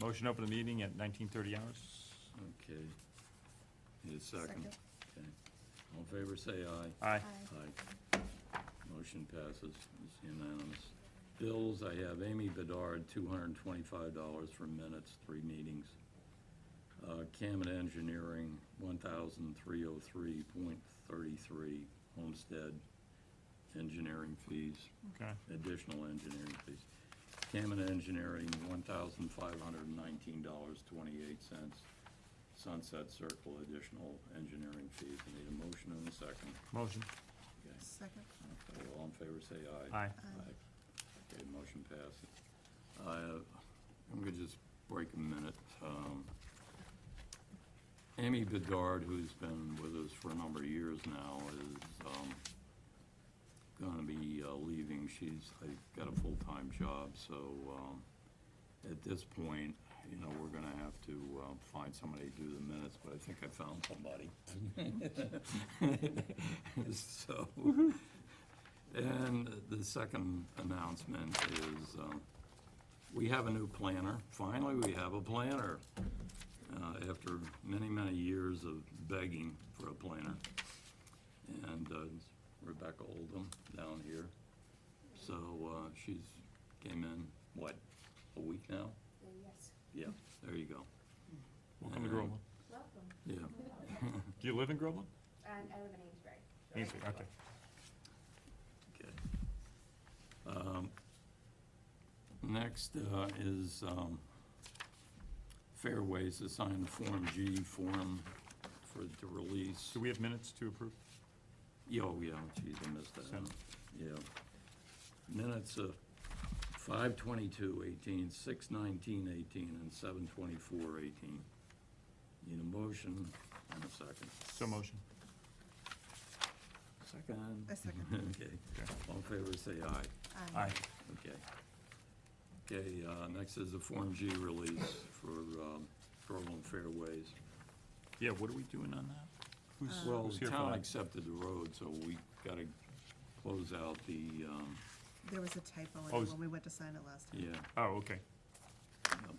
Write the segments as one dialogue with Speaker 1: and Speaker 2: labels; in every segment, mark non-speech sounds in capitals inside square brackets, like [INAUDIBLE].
Speaker 1: Motion to open the meeting at 19:30 hours.
Speaker 2: Okay. Need a second?
Speaker 3: Second.
Speaker 2: Okay. All in favor, say aye.
Speaker 1: Aye.
Speaker 2: Aye. Motion passes, it's unanimous. Bills, I have Amy Bedard, $225 for minutes, three meetings. Uh, Camet Engineering, $1,303.33, Homestead Engineering fees,
Speaker 1: Okay,
Speaker 2: additional engineering fees. Camet Engineering, $1,519.28, Sunset Circle, additional engineering fees. I need a motion and a second.
Speaker 1: motion.
Speaker 2: Okay.
Speaker 3: Second.
Speaker 2: Okay, All in favor, say aye.
Speaker 1: Aye.
Speaker 2: Okay, motion passes. Uh, I'm gonna just break a minute. Um, Amy Bedard, who's been with us for a number of years now, is um, gonna be uh, leaving. She's, I got a full-time job, so um, at this point, you know, we're gonna have to uh, find somebody to do the minutes, but I think I found somebody. [LAUGHS] So, and Uh, the second announcement is, um, we have a new planner. Finally, we have a planner, uh, after many, many years of begging for a planner. And uh, it's Rebecca Oldham down here. So uh, she's, came in, what, a week now?
Speaker 4: Yes,
Speaker 2: Yeah, there you go.
Speaker 1: Welcome to Groveland.
Speaker 4: welcome.
Speaker 2: Yeah.
Speaker 1: Do you live in Groveland?
Speaker 4: And I live in Amesbury.
Speaker 1: Amesbury, okay.
Speaker 2: Okay. Um, Next uh, is um, Fairways to sign the Form G form for, to release.
Speaker 1: Do we have minutes to approve?
Speaker 2: Yeah, Oh, yeah, geez, I missed that one.
Speaker 1: Send.
Speaker 2: Yeah. Minutes of 5:22:18, 6:19:18, and 7:24:18. Need a motion and a second.
Speaker 1: So motion.
Speaker 2: Second.
Speaker 3: I second.
Speaker 2: [LAUGHS] Okay.
Speaker 1: Okay.
Speaker 2: All in favor, say aye.
Speaker 1: Aye.
Speaker 2: Okay. Okay, uh, next is the Form G release for um, Groveland Fairways.
Speaker 1: Yeah, what are we doing on that? Who's,
Speaker 2: Well,
Speaker 1: who's
Speaker 2: the
Speaker 1: here
Speaker 2: town
Speaker 1: for that?
Speaker 2: accepted the road, so we got to close out the, um,
Speaker 3: There was a typo in
Speaker 1: Oh,
Speaker 3: it
Speaker 1: is-
Speaker 3: when we went to sign it last time.
Speaker 2: yeah,
Speaker 1: Oh, okay.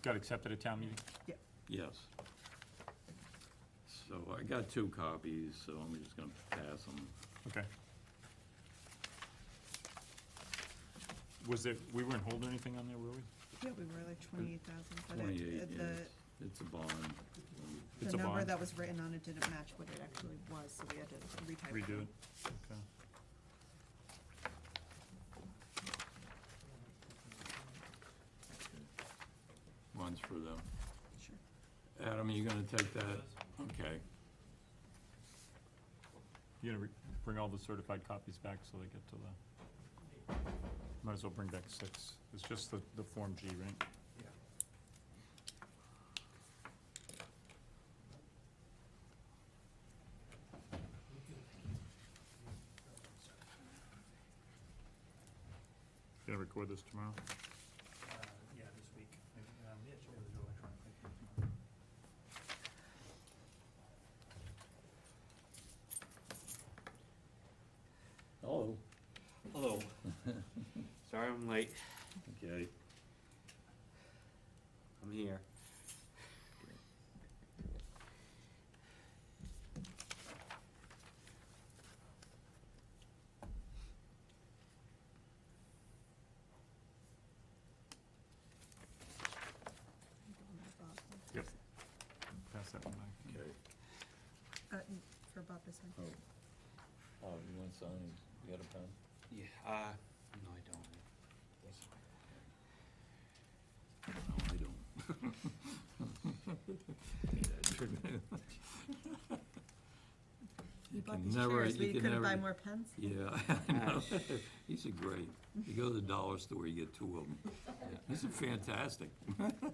Speaker 1: Got accepted at town meeting?
Speaker 3: Yeah.
Speaker 2: yes. So I got two copies, so I'm just going to pass them.
Speaker 1: Okay. Was it, we weren't holding anything on there, were we?
Speaker 3: Yeah, we were like twenty-eight thousand, but it-
Speaker 2: 28,
Speaker 3: it,
Speaker 2: yeah,
Speaker 3: the,
Speaker 2: it's a bond.
Speaker 1: It's
Speaker 3: the
Speaker 1: a
Speaker 3: number
Speaker 1: bond.
Speaker 3: that was written on it didn't match what it actually was, so we had to retype it.
Speaker 1: Redo it? Okay.
Speaker 2: One's for them.
Speaker 3: Sure.
Speaker 2: Adam, are you going to take that? Okay.
Speaker 1: You gonna re- bring all the certified copies back so they get to the, might as well bring back six. It's just the, the Form G, right?
Speaker 5: Uh,
Speaker 1: Gonna record this tomorrow?
Speaker 5: uh, yeah, this week. Um, yeah, should be able to do electronically.
Speaker 2: Hello.
Speaker 5: Hello. Sorry I'm late.
Speaker 2: Okay.
Speaker 5: I'm here.
Speaker 1: Yep. Pass that one back.
Speaker 2: Okay.
Speaker 3: Uh, for Bob to sign.
Speaker 2: Oh, oh, you want sign, you got a pen?
Speaker 5: Yeah, uh, no, I don't.
Speaker 2: No, I [LAUGHS] don't.
Speaker 3: You bought
Speaker 2: can
Speaker 3: these
Speaker 2: never-
Speaker 3: chairs, but
Speaker 2: you
Speaker 3: you
Speaker 2: can
Speaker 3: couldn't buy
Speaker 2: never-
Speaker 3: more Ah. pens?
Speaker 2: Yeah, [LAUGHS] I know.
Speaker 3: [LAUGHS]
Speaker 2: these are great. You go to the dollar store, you get two of them. These are fantastic.